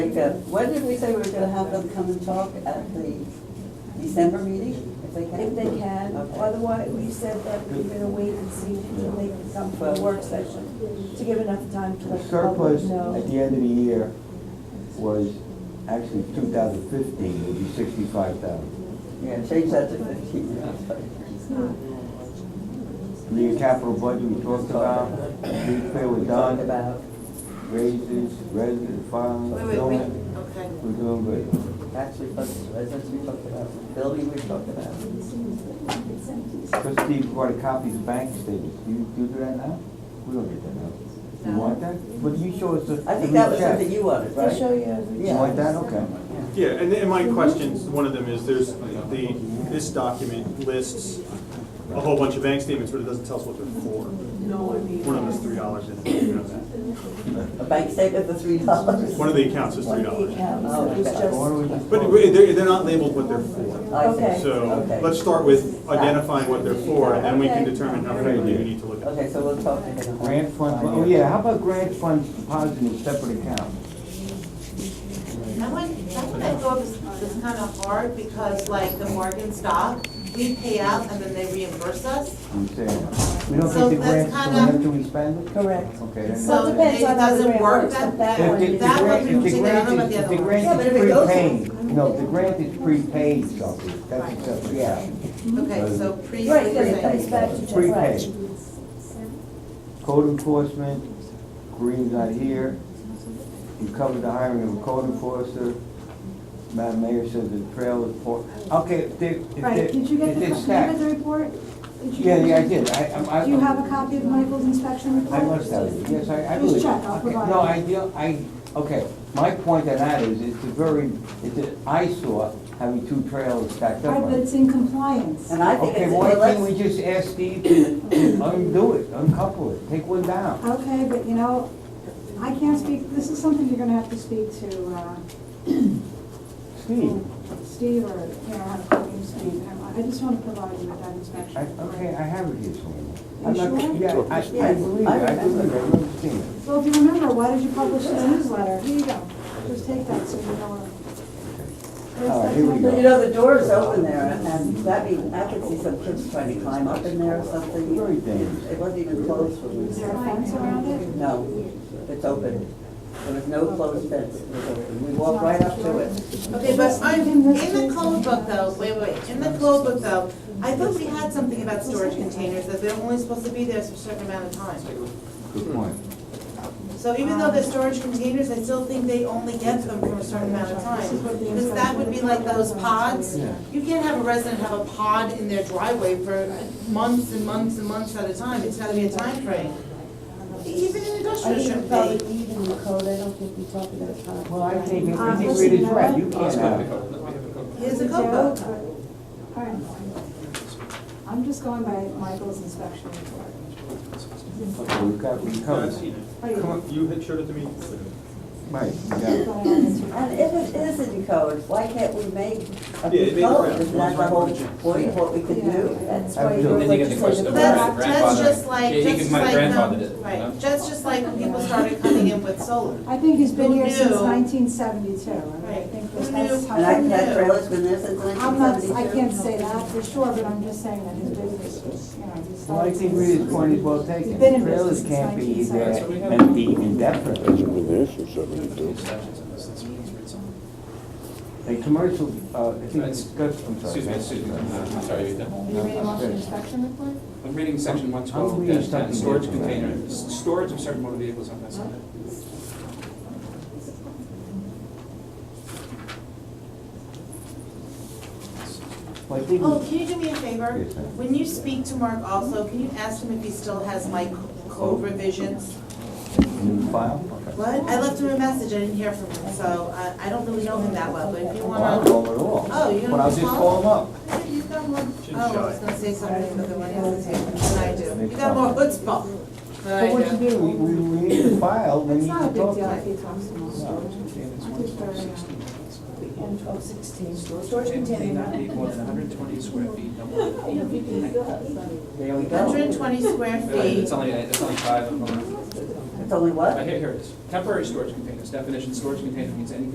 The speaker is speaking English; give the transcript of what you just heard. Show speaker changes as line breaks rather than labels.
Except, When did we say we were gonna have them come and talk at the December meeting, if they
If
can?
they can,
Okay.
otherwise, we said that we're gonna wait and see if they can come for a work session, to give enough time to
The
let the public
surplus at
know.
the end of the year was, actually, two thousand fifteen, would be sixty-five thousand.
Yeah, change that to fifteen. I'm sorry.
The capital budget we talked about, we feel we're
We talked
done,
about,
raises, resident funds,
Wait, wait, wait,
building,
okay.
we're doing good.
actually, residents we talked about, building we talked about.
Trustee brought a copy of the bank statements, do you, do you do that now? We don't get that now. You
No.
want that? But you show us the.
I think that was
the check.
something you wanted,
They'll show
right?
you.
You want that, okay.
Yeah, and, and my questions, one of them is, there's the, this document lists a whole bunch of bank statements, but it doesn't tell us what they're for.
No, I mean.
One of them is three dollars in, it, you know that.
A bank statement for three dollars.
One of the accounts is three dollars.
Why don't we just
But
vote?
they're, they're not labeled what they're for.
I
Okay.
see,
So,
okay.
let's start with identifying what they're for, and then we can determine how many we need to look at.
Okay, so we'll talk to him.
Grant fund, oh yeah, how about grant funds deposited in separate account?
That one, that one I thought was, was kind of hard because like the Morgan stock, we pay out and then they reimburse us.
I'm saying, we don't
So
think the
that's
grants
kinda-
come after we spend it?
Correct.
Okay. then-
So
Well, it depends
it
on how the
doesn't
grant
work
works,
that-
but that
If the-
one.
the
that
grant-
one
if the
particularly, I don't know
grant is-
about the other
If
ones.
the
Yeah, but if it goes-
grant is prepaid, no, the grant is prepaid, Sophie, that's a separate
Yeah.
account.
Okay, so pre.
Right, then it
Prepaid.
comes back to just right.
Prepaid. Code enforcement, Green's not here. We covered the hiring of a code enforcer. Madam Mayor says the trail is poor. Okay, if they, if they.
Right, did you get
if
the,
they're
did you
stacked-
get the report? Did you-
Yeah, yeah, I did, I, I'm- I.
Do you have a copy of Michael's inspection report?
I must have it, yes, I, I
Just
believe.
check, I'll
Okay,
provide
No,
it.
I, deal- I, okay, my point on that is, it's a very, it's an eyesore having two trailers stacked up.
Right,
on
but
it.
it's in compliance.
And I think
Okay,
it's,
why
well,
can't we
let's,
just ask Steve to undo it, uncouple it, take one down?
Okay, but you know, I can't speak, this is something you're gonna have to speak to, uh,
Steve,
Steve or, you know, have a copy of Steve. I- I just wanna provide you with that inspection.
I,
report.
okay, I have it here somewhere.
You
I'm not-
sure?
Yeah, I, I
Yes,
believe it,
I
I
remember.
believe it, I remember seeing it.
Well, if you remember, why did you publish the newsletter? Here you go. Just take that so you know. what-
All right, here we
but you
go.
know, the door is open there, and that means, I could see some kids trying to climb up in there or something.
Very dangerous.
It wasn't even closed when we
Is there a fence around it?
No, it's open. There was no closed fence, it was open. We walked right up to it.
Okay, but on- in the code book though, wait, wait, in the code book though, I thought we had something about storage containers, that they're only supposed to be there for a certain amount of time.
Good point.
So even though they're storage containers, I still think they only get them for a certain amount of time. Because that would be like those pods.
Yeah.
You can't have a resident have a pod in their driveway for uh, months and months and months at a time. It's gotta be a time frame. Even in
I think
industrial
it's
shouldn't
probably
be.
even the code, I don't think we talk about time.
Well, I think, I
Uh,
think
listen,
Rita's
you know
right,
what?
you can't uh, have it.
Here's a
We do,
code book.
but- all right. I'm just going by Michael's inspection report.
Okay, we've got, we
Yeah, I've
covered.
seen
Are
it.
you-
Come on, you had showed it to me.
Right, you got it.
But I don't answer
And
that.
if it is in code, why can't we make a
Yeah, it
new
made it
code?
around.
Isn't that the whole point of what we could do?
That's
I
why
do.
you're
Then you get the question of
legislative.
That's, that's
Grandfather.
just like,
Yeah, you
just
can- my
like,
grandfather
no,
did it, you know?
right, that's just like when people started coming in with solar.
I think he's been
Who
here since
knew?
nineteen seventy-two, and I
Right.
think
Who
that that's
knew?
how.
And I
think
that
that-
trailer's been there since
I'm
nineteen
not,
seventy-two.
I can't say that for sure, but I'm just saying that his business was, you know, he
Well, I think
started.
Rita's point is well taken.
He's been in
Trailers
business
can't be
since
there
1972.
empty indefinitely.
Been there since seventy-two.
A commercial, uh, I think,
It's-
discuss- I'm sorry.
Excuse me, excuse me, I'm sorry, you done?
You read him off the inspection report?
I'm reading section one
I'm
twelve
reading
ten,
something
storage
different.
container, s- storage of certain motor vehicles on that side.
Well, I think,
Oh, can you do me a favor?
Yes, ma'am.
When you speak to Mark also, can you ask him if he still has my co- code revisions?
new file? Okay.
What? I left him a message, I didn't hear from him, so uh, I, I don't really know him that well, but if you
Well, I
wanna.
don't know him at all.
Oh, you don't
But I'll
know
just
Paul?
call him up.
Hey, You've got more,
She's
oh, I was
shy.
gonna say something, but the one else is here, than I do. You got more chutzpah
So
than
what
I
you
do.
do, we, we, we need a file, we
It's
need to
not a
talk.
big deal
to
if he talks to most
storage
And twelve sixteen.
Storage
May
container.
not be more than hundred and twenty square feet, no more.
There we go.
Hundred and twenty square feet.
It's only, it's only five of them.
It's only what?
Uh, Here, here it is. Temporary storage containers, definition, storage container means any